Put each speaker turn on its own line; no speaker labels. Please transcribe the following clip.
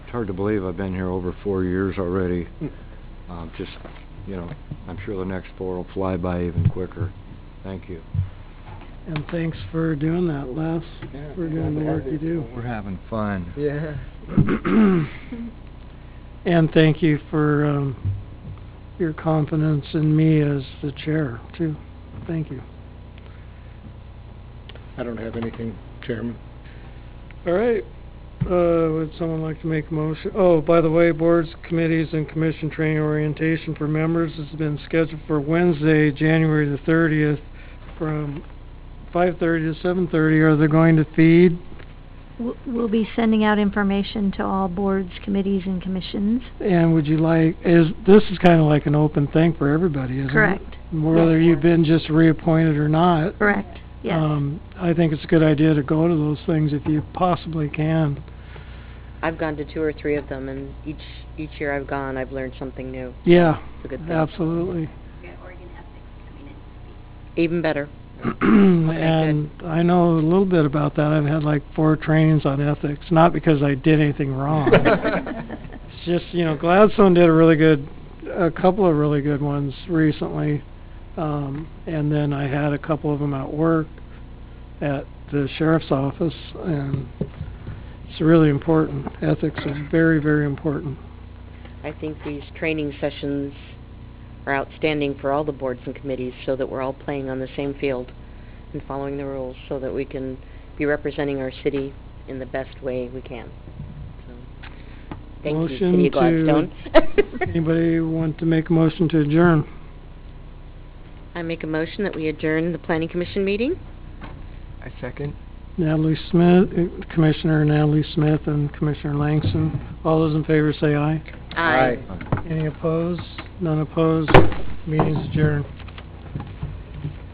It's hard to believe I've been here over four years already. Uh, just, you know, I'm sure the next four will fly by even quicker. Thank you.
And thanks for doing that, Les, for doing the work you do.
We're having fun.
Yeah.
And thank you for, um, your confidence in me as the chair, too. Thank you.
I don't have anything, Chairman.
All right, uh, would someone like to make a motion? Oh, by the way, boards, committees, and commission training orientation for members has been scheduled for Wednesday, January the thirtieth, from five-thirty to seven-thirty. Are they going to feed?
W- We'll be sending out information to all boards, committees, and commissions.
And would you like, is, this is kinda like an open thing for everybody, isn't it?
Correct,
Whether you've been just reappointed or not.
correct, yes.
Um, I think it's a good idea to go to those things if you possibly can.
I've gone to two or three of them, and each each year I've gone, I've learned something new.
Yeah,
It's a good thing.
absolutely.
Even better.
and I know a little bit about that. I've had like four trainings on ethics, not because I did anything wrong. it's just, you know, Gladstone did a really good, a couple of really good ones recently. Um, and then I had a couple of them at work at the sheriff's office, and it's really important. Ethics is very, very important.
I think these training sessions are outstanding for all the boards and committees, so that we're all playing on the same field and following the rules, so that we can be representing our city in the best way we can. So, thank
Motion to-
you, City of Gladstone.
Anybody want to make a motion to adjourn?
I make a motion that we adjourn the planning commission meeting.
I second.
Natalie Smith, uh, Commissioner Natalie Smith and Commissioner Langston. All those in favor say aye.
Aye.
Any opposed? None opposed? Meeting's adjourned.